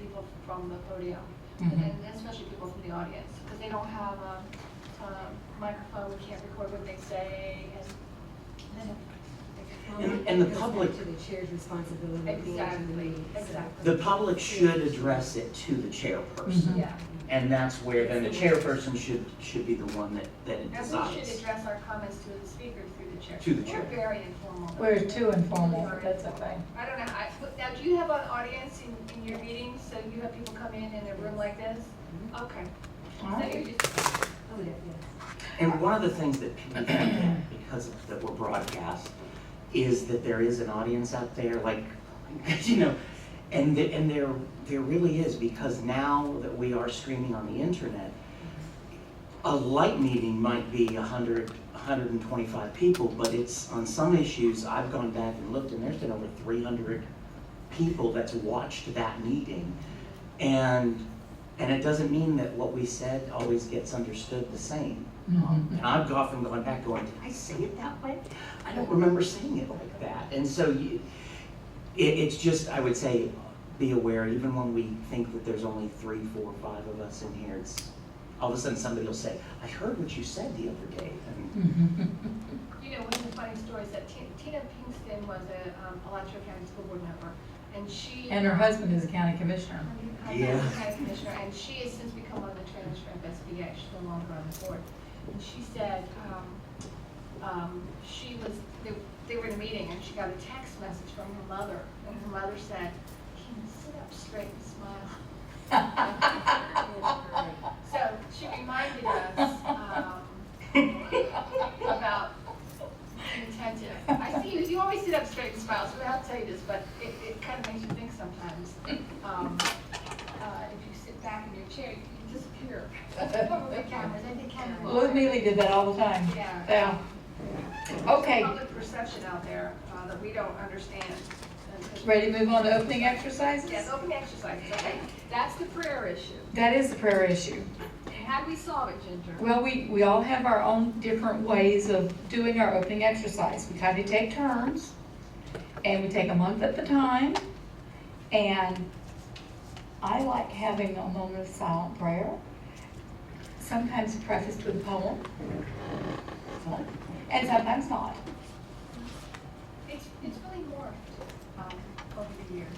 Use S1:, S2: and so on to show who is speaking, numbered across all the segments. S1: people from the podium,
S2: Mhm.
S1: and especially people from the audience, because they don't have a um, microphone, we can't record what they say, and then.
S3: And- and the public-
S4: It goes back to the chair's responsibility of going to the
S1: Exactly,
S4: meeting. so-
S1: exactly.
S3: The public should address it to the
S2: Mhm.
S3: chairperson.
S1: Yeah,
S3: And that's where, then the chairperson should, should be the one that, that
S1: and we should
S3: decides.
S1: address our comments to the speaker through the chair.
S3: To the chair.
S1: We're very informal.
S2: We're too informal,
S1: We are
S2: that's a
S1: informal.
S2: thing.
S1: I don't know, I, but now, do you have an audience in, in your meetings, so you have people come in in a room like this? Okay. So you're just-
S4: Oh, yeah, yes.
S3: And one of the things that people forget, because of- that we're broadcast, is that there is an audience out there, like, you know, and, the- and there, there really is, because now that we are streaming on the internet, a light meeting might be a hundred, hundred and twenty-five people, but it's, on some issues, I've gone back and looked, and there's been over three hundred people that's watched that meeting. And, and it doesn't mean that what we said always gets understood the same. Um, And I've often gone back going, did I say it that way? I don't remember saying it like that. And so you, it, it's just, I would say, be aware, even when we think that there's only three, four, five of us in here, it's, all of a sudden somebody will say, I heard what you said the other day. And
S2: Mm-hmm.
S1: You know, one of the funny stories that Ti- Tina Pinkston was a um, Alachua County School Board member, and she.
S2: And her husband is a county commissioner.
S1: Her
S3: Yeah.
S1: husband's a county commissioner, and she has since become one of the trainers for FSBA, she's no longer on the board. And she said, um, um, she was, they, they were in a meeting, and she got a text message from her mother, and her mother said, can you sit up straight and smile? So she reminded us um, about intention. I see you, you always sit up straight and smile, so I'll tell you this, but it, it kind of makes you think sometimes. Um, uh, If you sit back in your chair, you can disappear. Over the cameras, I think cameras.
S2: Lou Mealy did that all the time.
S1: Yeah.
S2: Okay,
S1: Public perception out there uh, that we don't understand.
S2: ready to move on to opening exercises?
S1: Yes, open exercises, okay? That's the prayer issue.
S2: That is the prayer issue.
S1: How do we solve it, Ginger?
S2: Well, we, we all have our own different ways of doing our opening exercise. We kind of take turns, and we take a month at the time. And I like having a moment of silent prayer, sometimes prefaced with a poem. So, And sometimes not.
S1: It's, it's really morphed um, over the years.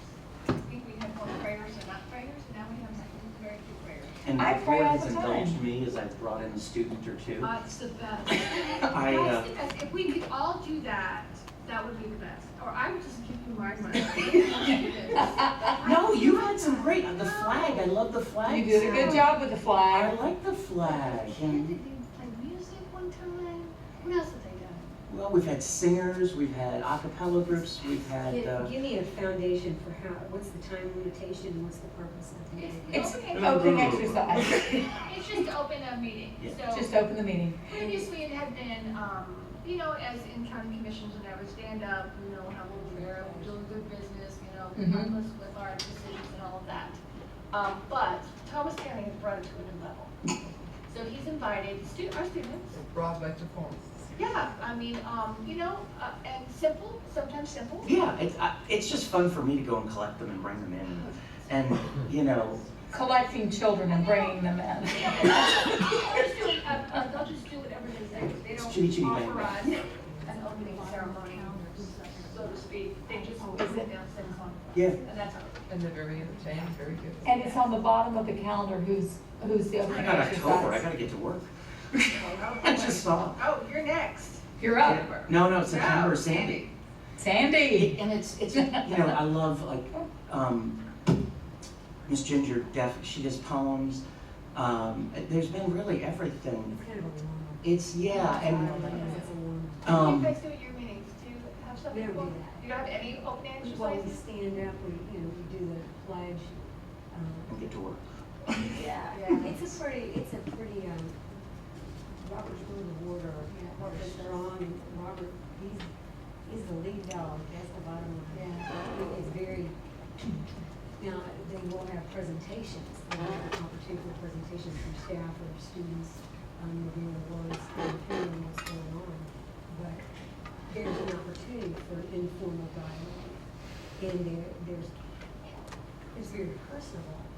S1: I think we had more prayers and not prayers, and now we have very few prayers.
S3: and
S2: I
S3: the
S2: pray
S3: board
S2: all
S3: has
S2: the time.
S3: indulged me as I've brought in a student or two.
S1: Uh, It's the best.
S3: I, uh,
S1: That's the best. If we could all do that, that would be the best. Or I would just give you my money.
S3: No, you had some great, the flag, I love the flag.
S2: You did a good job with the
S3: I
S2: flag.
S3: like the flag.
S1: Did
S3: And,
S1: they play music one time? What else have they done?
S3: well, we've had singers, we've had a cappella groups, we've had,
S4: Give-
S3: uh,
S4: Give me a foundation for how, what's the time limitation, and what's the purpose of the meeting?
S2: It's an opening exercise.
S1: It's just to open a meeting,
S3: Yeah.
S1: so.
S2: Just open the meeting.
S1: Previously, it had been, um, you know, as in county commissions, and I would stand up, you know, have a little prayer, we're doing good business, you know,
S3: Mm-hmm.
S2: Mhm.
S1: help us with our decisions and all of that. Um, but Thomas County has brought it to a new level. So he's invited stu- our students.
S5: brought back to form.
S1: Yeah, I mean, um, you know, uh, and simple, sometimes simple.
S3: yeah, it's, I- it's just fun for me to go and collect them and bring them in. And, you know,
S2: Collecting children and bringing them
S1: They'll
S2: in.
S1: just do it, uh, uh, they'll just do whatever they say. They
S3: It's chitty chitty
S1: don't
S3: bang
S1: offer
S3: bang.
S1: us an opening ceremony, so to speak. They just open it down, send it on.
S3: yeah,
S1: And that's all.
S5: And they're very entertained, very good.
S2: And it's on the bottom of the calendar who's, who's the
S3: I
S2: opening
S3: got October, I
S2: exercise.
S3: gotta get to work. I just saw.
S1: Oh, you're next.
S2: You're up.
S3: No, no, September, Sandy.
S2: Sandy.
S3: And it's, it's, you know, I love like, um, Miss Ginger Def, she does poems. Um, there's been really everything.
S4: It's kind of a long.
S3: It's, yeah, and,
S4: Uh, It's a long.
S1: You
S3: um,
S1: guys do at your meetings, do you have some
S4: We don't do
S1: people?
S4: that.
S1: You don't have any open
S4: While we
S1: exercises?
S4: stand up, we, you know, we do the pledge. um,
S3: and get to work.
S1: Yeah.
S4: Yeah, it's a pretty, it's a pretty, um, Robert's rule of order, Robert Strong, and Robert, he's, he's the lead dog, that's the bottom line. It is very, now, they will have presentations, they will have opportunity for presentations from staff or students, um, reviewing the words, and hearing what's going on. But there's an opportunity for informal dialogue, and there, there's, it's very personable